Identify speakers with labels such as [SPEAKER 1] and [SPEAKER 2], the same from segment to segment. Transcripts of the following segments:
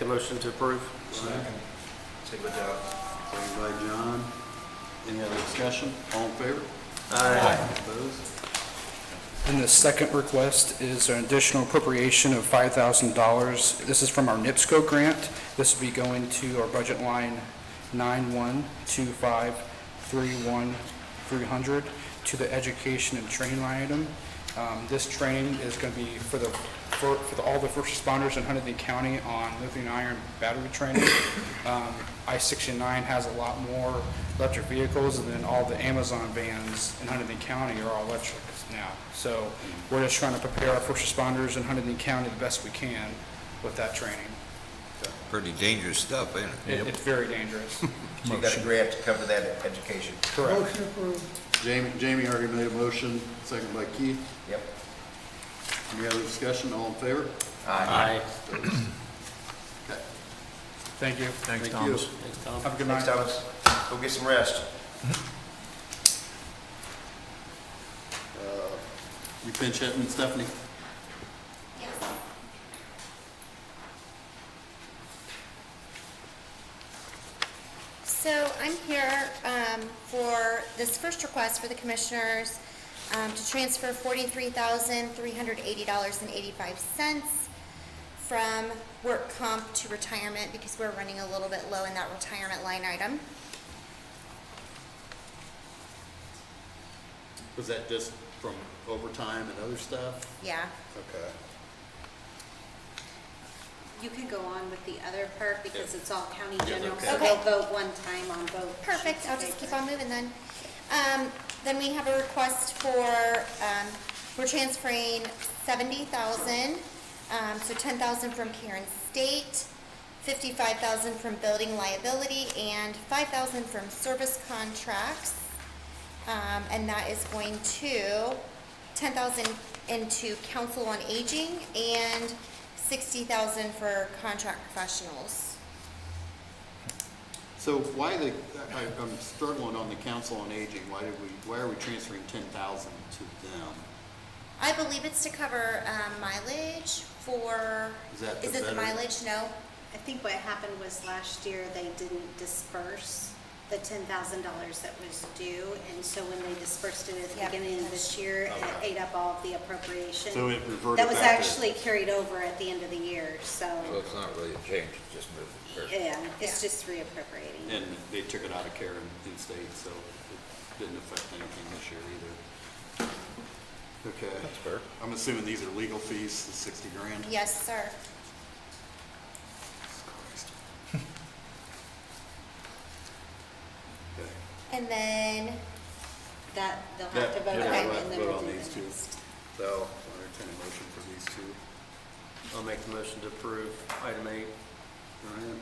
[SPEAKER 1] The motion to approve?
[SPEAKER 2] Second.
[SPEAKER 3] Second by John.
[SPEAKER 2] Second by John. Any other discussion? All in favor?
[SPEAKER 1] Aye.
[SPEAKER 2] Opposed?
[SPEAKER 4] And the second request is an additional appropriation of $5,000. This is from our NIPSCO grant. This will be going to our budget line 912531-300 to the education and training line item. Um, This training is going to be for the, for for the- all the first responders in Huntington County on lithium iron battery training. Um, I-69 has a lot more electric vehicles, and then all the Amazon vans in Huntington County are all electric now. So we're just trying to prepare our first responders in Huntington County the best we can with that training.
[SPEAKER 5] Pretty dangerous stuff, ain't it?
[SPEAKER 4] It- It's very dangerous.
[SPEAKER 3] So you got a grant to cover that education.
[SPEAKER 4] Correct.
[SPEAKER 2] Jamie, Jamie already made a motion, second by Keith.
[SPEAKER 3] Yep.
[SPEAKER 2] Any other discussion? All in favor?
[SPEAKER 3] Aye.
[SPEAKER 1] Aye.
[SPEAKER 2] Okay.
[SPEAKER 4] Thank you.
[SPEAKER 2] Thank
[SPEAKER 1] Thanks,
[SPEAKER 2] you.
[SPEAKER 1] Thomas. Thanks, Tom.
[SPEAKER 4] Have a good
[SPEAKER 3] Thanks,
[SPEAKER 4] night.
[SPEAKER 3] Thomas. Go get some rest.
[SPEAKER 2] You pinch hitting Stephanie?
[SPEAKER 6] So I'm here um, for this first request for the commissioners um, to transfer $43,380.85 from work comp to retirement because we're running a little bit low in that retirement line item.
[SPEAKER 2] Was that just from overtime and other stuff?
[SPEAKER 6] Yeah.
[SPEAKER 2] Okay.
[SPEAKER 7] You can go on with the other part because it's all county
[SPEAKER 2] Yeah,
[SPEAKER 7] general,
[SPEAKER 2] okay.
[SPEAKER 7] so they'll
[SPEAKER 6] Okay.
[SPEAKER 7] vote one time on both.
[SPEAKER 6] Perfect,
[SPEAKER 7] sheets
[SPEAKER 6] I'll
[SPEAKER 7] of
[SPEAKER 6] just keep
[SPEAKER 7] paper.
[SPEAKER 6] on moving then. Um, Then we have a request for, um, we're transferring seventy thousand, um, so ten thousand from care and state, fifty-five thousand from building liability, and five thousand from service contracts. Um, And that is going to, ten thousand into council on aging, and sixty thousand for contract professionals.
[SPEAKER 2] So why the, I, I'm struggling on the council on aging. Why did we, why are we transferring ten thousand to them?
[SPEAKER 6] I believe it's to cover um, mileage for,
[SPEAKER 2] Is that the
[SPEAKER 6] is it the
[SPEAKER 2] better-
[SPEAKER 6] mileage? No.
[SPEAKER 7] I think what happened was last year, they didn't disperse the ten thousand dollars that was due. And so when they dispersed it at
[SPEAKER 6] Yeah.
[SPEAKER 7] the beginning of this year, it ate up all of the appropriation.
[SPEAKER 2] So it reverted
[SPEAKER 7] That was
[SPEAKER 2] back to-
[SPEAKER 7] actually carried over at the end of the year, so,
[SPEAKER 5] So it's not really a change, it's just moving.
[SPEAKER 7] yeah, it's
[SPEAKER 6] Yeah.
[SPEAKER 7] just reappropriating.
[SPEAKER 2] And they took it out of care in, in state, so it didn't affect anything this year either. Okay.
[SPEAKER 5] That's fair.
[SPEAKER 2] I'm assuming these are legal fees, the sixty grand?
[SPEAKER 6] Yes, sir.
[SPEAKER 2] Okay.
[SPEAKER 6] And then,
[SPEAKER 7] That, they'll
[SPEAKER 2] That-
[SPEAKER 7] have to vote on
[SPEAKER 2] yeah,
[SPEAKER 7] it
[SPEAKER 2] we'll have to
[SPEAKER 7] and then
[SPEAKER 2] vote
[SPEAKER 7] we'll
[SPEAKER 2] on
[SPEAKER 7] do
[SPEAKER 2] these
[SPEAKER 7] the
[SPEAKER 2] two.
[SPEAKER 7] next.
[SPEAKER 2] So I'll entertain a motion for these two.
[SPEAKER 1] I'll make the motion to approve item eight.
[SPEAKER 2] Ryan,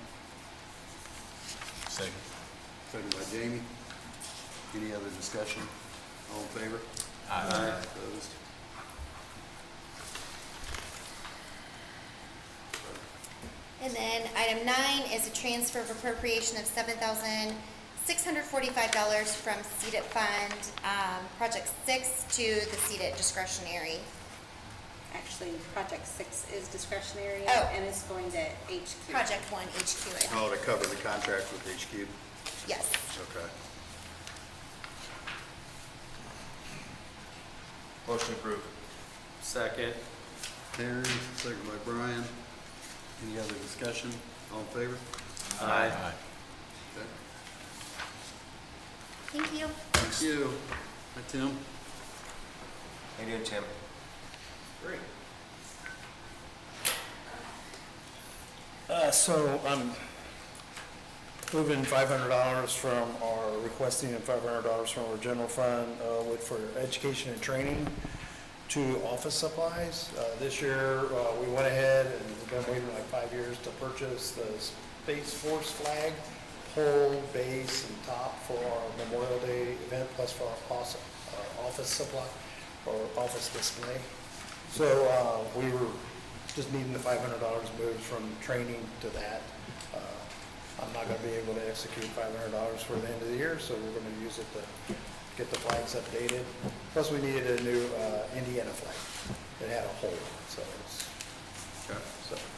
[SPEAKER 5] Second.
[SPEAKER 2] seconded by Jamie. Any other discussion? All in favor?
[SPEAKER 1] Aye.
[SPEAKER 2] Opposed?
[SPEAKER 6] and then item nine is a transfer of appropriation of seven thousand six hundred forty-five dollars from CEDAT fund, um, project six to the CEDAT discretionary.
[SPEAKER 7] Actually, project six is discretionary
[SPEAKER 6] Oh.
[SPEAKER 7] and it's going to HQ.
[SPEAKER 6] Project one HQ, I think.
[SPEAKER 2] Oh, to cover the contract with HQ?
[SPEAKER 6] yes.
[SPEAKER 2] Okay.
[SPEAKER 3] Motion approved.
[SPEAKER 1] Second.
[SPEAKER 2] Terry, seconded by Brian. Any other discussion? All in favor?
[SPEAKER 1] Aye.
[SPEAKER 2] Okay.
[SPEAKER 6] Thank you.
[SPEAKER 2] Thank you. Hi, Tim.
[SPEAKER 3] How you doing, Tim?
[SPEAKER 8] Great. Uh, so I'm moving five hundred dollars from our, requesting five hundred dollars from our general fund, uh, with, for education and training to office supplies. Uh, this year, uh, we went ahead and we've been waiting like five years to purchase the Space Force flag, pole, base, and top for our Memorial Day event, plus for our office, our office supply, or office display. So, uh, we were just needing the five hundred dollars moved from training to that. Uh, I'm not gonna be able to execute five hundred dollars for the end of the year, so we're gonna use it to get the flags updated. Plus, we needed a new, uh, Indiana flag. It had a hole, so it's,
[SPEAKER 2] Okay.
[SPEAKER 8] so.